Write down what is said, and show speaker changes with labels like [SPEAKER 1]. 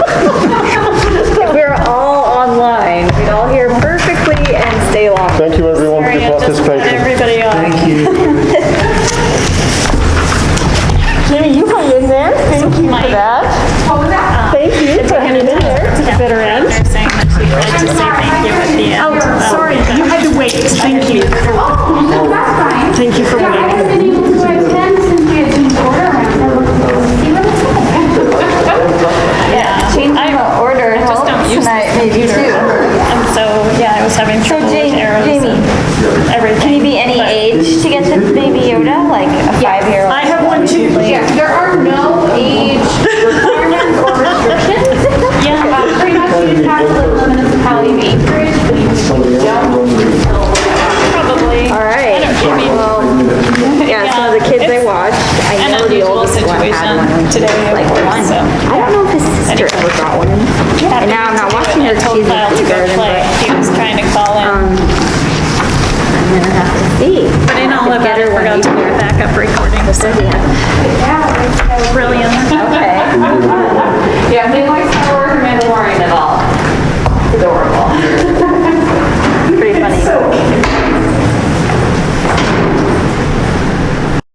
[SPEAKER 1] um,
[SPEAKER 2] be.
[SPEAKER 1] But in all of
[SPEAKER 2] Get
[SPEAKER 1] that, I
[SPEAKER 2] her one
[SPEAKER 1] forgot to do
[SPEAKER 2] each.
[SPEAKER 1] a backup recording.
[SPEAKER 2] Yes, I did.
[SPEAKER 3] Yeah.